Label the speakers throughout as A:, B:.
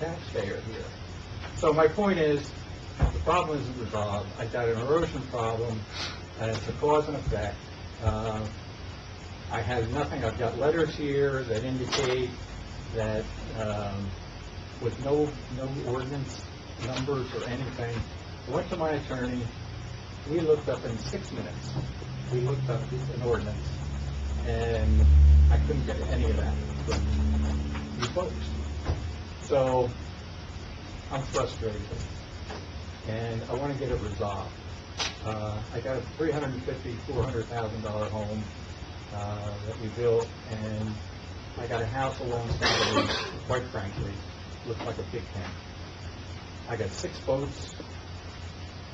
A: taxpayer here. So my point is, the problem isn't resolved. I've got an erosion problem, and it's a cause and effect. Uh, I have nothing, I've got letters here that indicate that, um, with no, no ordinance numbers or anything, I went to my attorney, we looked up in six minutes, we looked up an ordinance, and I couldn't get any of that from you folks. So, I'm frustrated, and I want to get it resolved. Uh, I got a three hundred and fifty, four hundred thousand dollar home, uh, that we built, and I got a house alongside of it, quite frankly, looked like a big tent. I got six boats,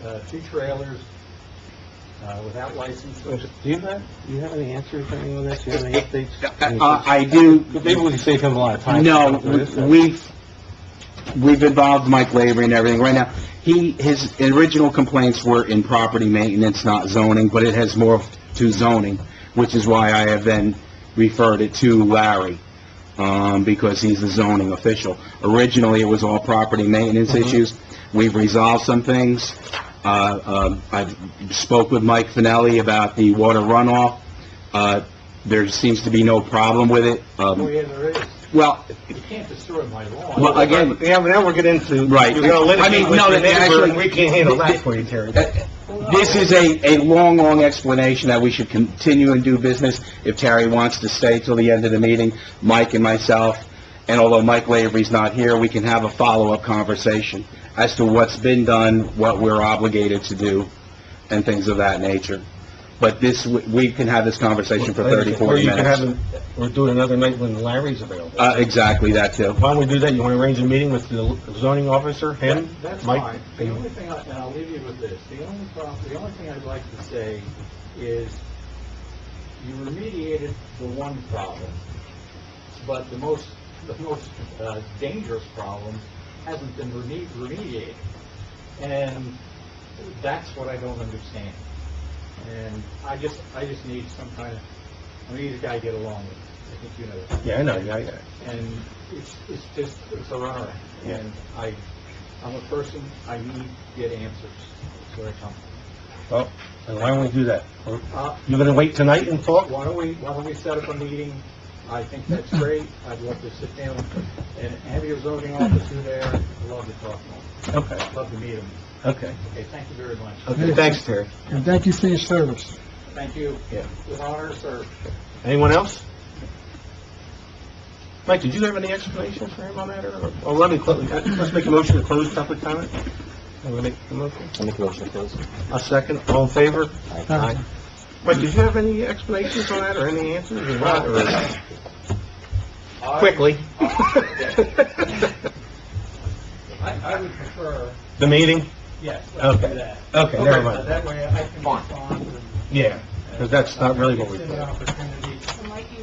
A: uh, two trailers, uh, without
B: Do
A: licenses.
B: you have, do you have any answers or anything on this? Do you have any updates? Any-
C: Uh, I do,
B: Maybe we can save him a lot of time.
C: no, we've, we've involved Mike Lavery and everything right now. He, his original complaints were in property maintenance, not zoning, but it has morphed to zoning, which is why I have then referred it to Larry, um, because he's the zoning official. Originally, it was all property maintenance issues. We've resolved some things. Uh, um, I spoke with Mike Finelli about the water runoff. Uh, there seems to be no problem with it.
A: Oh,
C: Um,
A: yeah, there is.
C: well,
A: You can't destroy my lawn.
C: Well, again-
B: Yeah, but now we're getting into,
C: Right.
B: you're gonna
C: I mean,
B: litigate with
C: no,
B: your
C: that-
B: neighbor,
C: actually-
B: and we can't handle that for you, Terry.
C: This is a, a long, long explanation that we should continue and do business. If Terry wants to stay till the end of the meeting, Mike and myself, and although Mike Lavery's not here, we can have a follow-up conversation as to what's been done, what we're obligated to do, and things of that nature. But this, we- we can have this conversation for 30, 40
B: Or
C: minutes.
B: you can have, it- or do it another night when Larry's available.
C: Uh, exactly, that too.
B: Why don't we do that? You want to arrange a meeting with the zoning officer, him?
A: That's
B: Mike?
A: fine. The only thing, I- and I'll leave you with this, the only problem, the only thing I'd like to say is, you remediated the one problem, but the most, the most uh, dangerous problem hasn't been reme- remediated. And that's what I don't understand. And I just, I just need some kind of, I need a guy to get along with, I think you know that
B: Yeah, I know, yeah, yeah.
A: and it's, it's just, it's a runaround.
B: Yeah.
A: And I, I'm a person, I need to get answers, that's where I come
B: Well, then why don't we do that? Or-
A: from. Uh,
B: You're gonna wait tonight and talk?
A: why don't we, why don't we set up a meeting? I think that's great, I'd love to sit down and have your zoning officer there, I'd love to talk to
B: Okay,
A: him, love to meet him.
B: okay.
A: Okay, thank you very much.
B: Okay, thanks, Terry.
D: And thank you for your service.
A: Thank you.
B: Yeah.
A: With honor, sir.
B: Anyone else? Mike, did you have any explanation for him on that, or, or let me, clo- let's make a motion to close public comment? I'm gonna make the motion.
C: I'll make a motion to close.
B: A second, all in favor? Mike, did you have any explanations on that, or any answers, or what, or?
A: I-
B: Quickly.
A: I, I would prefer,
B: The meeting?
A: yes, let's do
B: Okay.
A: that.
B: Okay, never
A: Uh,
B: mind.
A: That way I can respond and...
B: Yeah, because that's not really what we
A: It's an
B: did.
A: opportunity,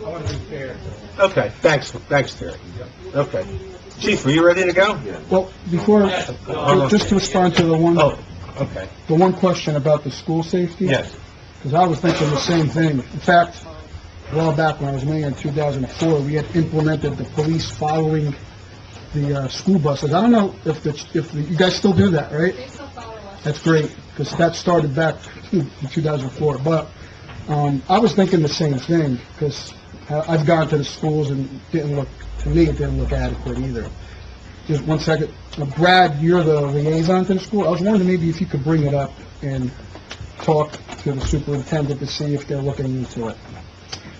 A: I want to be fair.
B: Okay, thanks, thanks, Terry. Okay. Chief, were you ready to go? Yeah.
D: Well, before, just to respond to the one,
B: Oh, okay,
D: the one question about the school safety.
B: yes.
D: Because I was thinking the same thing. In fact, a while back when I was mayor in 2004, we had implemented the police following the uh, school buses. I don't know if the, if the- you guys still do that, right?
E: They still follow us.
D: That's great, because that started back in 2004. But um, I was thinking the same thing, because I've gone to the schools and it didn't look, to me, it didn't look adequate either. Just one second. Uh, Brad, you're the liaison to the school. I was wondering maybe if you could bring it up and talk to the superintendent to see if they're looking into it.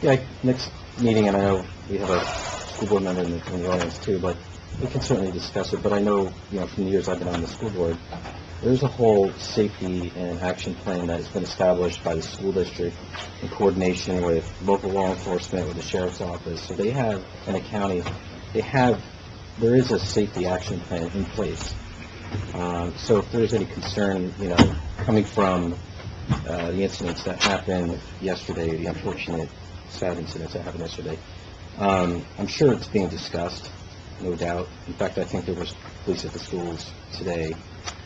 F: Yeah, next meeting, and I know we have a school board member in the, in the audience too, but we can certainly discuss it, but I know, you know, from the years I've been on the school board, there's a whole safety and action plan that has been established by the school district in coordination with local law enforcement, with the sheriff's office, so they have, and the county, they have, there is a safety action plan in place. Um, so if there's any concern, you know, coming from, uh, the incidents that happened yesterday, the unfortunate sad incidents that happened yesterday. Um, I'm sure it's being discussed, no doubt. In fact, I think there was police at the schools today.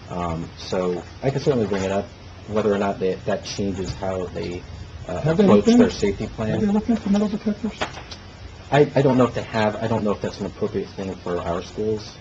F: Um, so I can certainly bring it up, whether or not that, that changes how they uh,
D: Have they
F: approach
D: looked at
F: their
D: it?
F: safety
D: Are they
F: plan.
D: looking for metal detectors?
F: I, I don't know if they have, I don't know if that's an appropriate thing for our schools.